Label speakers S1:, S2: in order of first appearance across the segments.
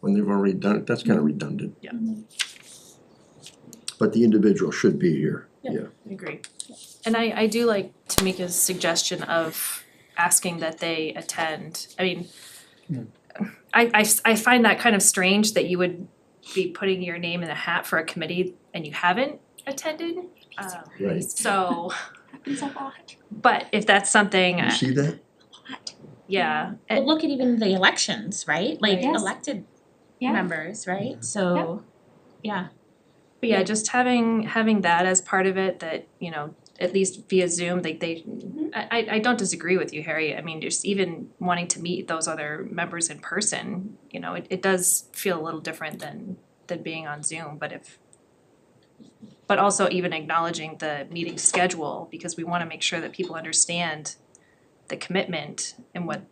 S1: when they've already done it, that's
S2: Mm-hmm.
S1: kinda redundant.
S3: Yeah.
S1: But the individual should be here,
S3: Yeah.
S1: yeah,
S3: I agree.
S2: And I I do like Tamika's suggestion of asking that they attend, I mean. I I s- I find that kind of strange that you would be putting your name in a hat for a committee and you haven't attended, um
S1: right,
S2: so,
S4: Happens a lot,
S2: but if that's something,
S1: you
S2: uh,
S1: see that?
S4: a lot.
S2: yeah,
S5: But
S2: it-
S5: look at even the elections, right? Like
S4: Yes.
S5: elected
S4: Yeah.
S5: members, right? So, yeah.
S2: but yeah, just having having that as part of it, that, you know, at least via Zoom, like they, I I I don't disagree with you, Harry, I mean, just even wanting to meet those other members in person, you know, it it does feel a little different than than being on Zoom, but if but also even acknowledging the meeting schedule, because we wanna make sure that people understand the commitment and what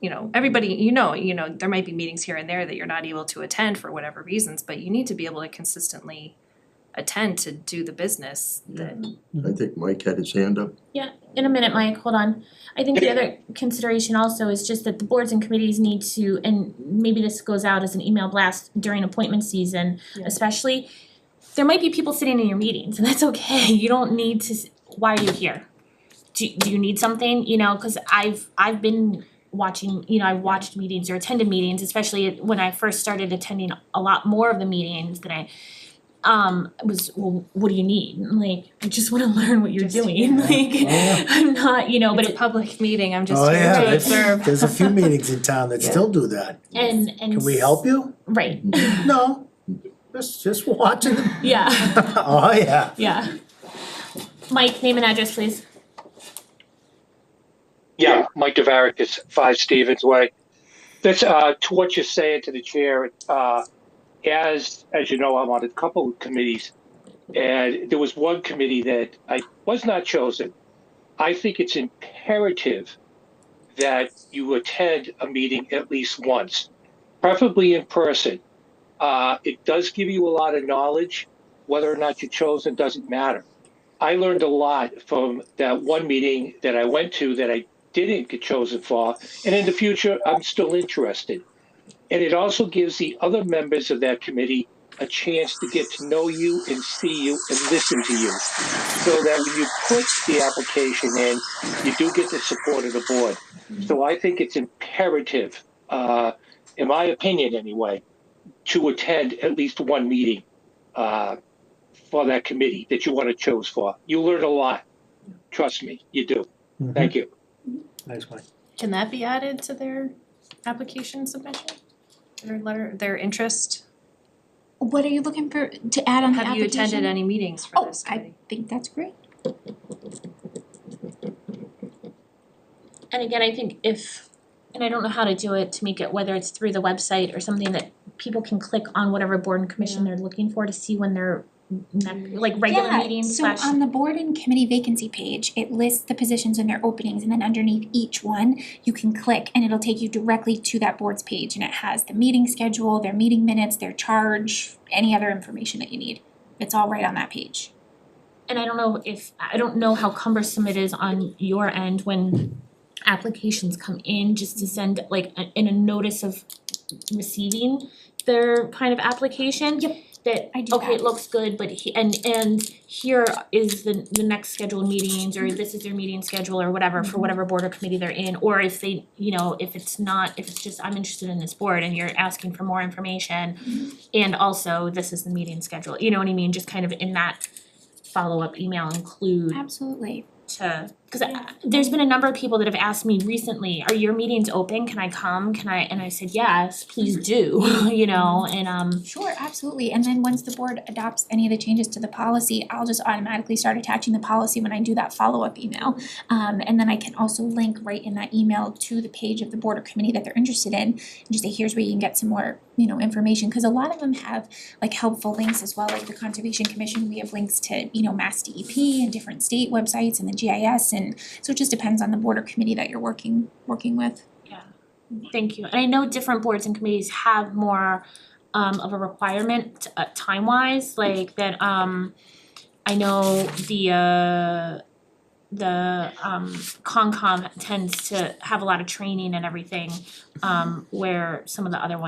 S2: you know, everybody, you know, you know, there might be meetings here and there that you're not able to attend for whatever reasons, but you need to be able to consistently attend to do the business that
S1: I think Mike had his hand up,
S5: In a minute, Mike, hold on. I think the other consideration also is just that the boards and committees need to, and maybe this goes out as an email blast during appointment season,
S2: Yeah.
S5: especially. There might be people sitting in your meetings and that's okay. You don't need to, s- why are you here? Do do you need something, you know, cause I've I've been watching, you know, I've watched meetings or attended meetings, especially when I first started attending a lot more of the meetings than I um was well, what do you need? And, Like, I just wanna learn what you're
S2: Just
S5: doing,
S2: hear.
S5: like
S6: Yeah.
S5: I'm not, you know, but
S2: it's
S5: it
S2: a public meeting, I'm just
S6: Oh,
S2: here
S6: yeah,
S2: to
S6: that's-
S2: observe.
S6: There's a few meetings in town that still do that.
S5: And and
S6: Can we help you?
S5: Right.
S6: No, just just watching them.
S5: Yeah.
S6: Oh, yeah.
S5: Yeah. Mike, name and address, please.
S7: Yeah, Mike Devarick is five Stevens Way. That's uh, to what you're saying to the chair. Uh, as as you know, I'm on a couple of committees, and there was one committee that I was not chosen. I think it's imperative that you attend a meeting at least once, preferably in person. Uh, it does give you a lot of knowledge. Whether or not you're chosen doesn't matter. I learned a lot from that one meeting that I went to that I didn't get chosen for, and in the future, I'm still interested. And it also gives the other members of that committee a chance to get to know you and see you and listen to you. So that when you put the application in, you do get the support of the board. So I think it's imperative, uh, in my opinion anyway, to attend at least one meeting, uh, for that committee that you want to choose for. You learn a lot. Trust me, you do. Thank you.
S6: Mm-hmm. Nice one.
S2: Can that be added to their application submission? Their letter, their interest?
S4: What are you looking for to add on the
S2: Have you attended
S4: application?
S2: any meetings for
S4: Oh,
S2: this
S4: I
S2: committee?
S4: think that's great.
S5: And again, I think if and I don't know how to do it to make it whether it's through the website or something that people can click on whatever board and commission they're looking for to see when they're like regular
S4: Yeah,
S5: meetings slash
S4: So on the board and committee vacancy page, it lists the positions and their openings and then underneath each one, you can click and it'll take you directly to that board's page and it has the meeting schedule, their meeting minutes, their charge, any other information that you need. It's all right on that page.
S5: and I don't know if, I don't know how cumbersome it is on your end when applications come in, just to send like a- in a notice of receiving their kind of application.
S4: Yep.
S5: That,
S4: I do
S5: okay, it
S4: that.
S5: looks good, but he, and and here is the the next scheduled meetings, or this is their meeting schedule or whatever
S4: Mm-hmm.
S5: for whatever board or committee they're in, or if they, you know, if it's not, if it's just, I'm interested in this board and you're asking for more information. And also, this is the meeting schedule, you know what I mean, just kind of in that follow-up email include
S4: Absolutely.
S5: to, cause I- there's been a number of people that have asked me recently, are your meetings open, can I come, can I, and I said, yes, please do, you know, and um,
S4: Sure, absolutely. And then once the board adopts any of the changes to the policy, I'll just automatically start attaching the policy when I do that follow-up email. Um, and then I can also link right in that email to the page of the board or committee that they're interested in. And just say, here's where you can get some more, you know, information, cause a lot of them have like helpful links as well, like the Conservation Commission, we have links to, you know, Mass DEP and different state websites and the GIS and so it just depends on the board or committee that you're working, working with.
S5: thank you. And I know different boards and committees have more um of a requirement uh time wise, like that um I know the uh the um Concom tends to have a lot of training and everything um where some of the other ones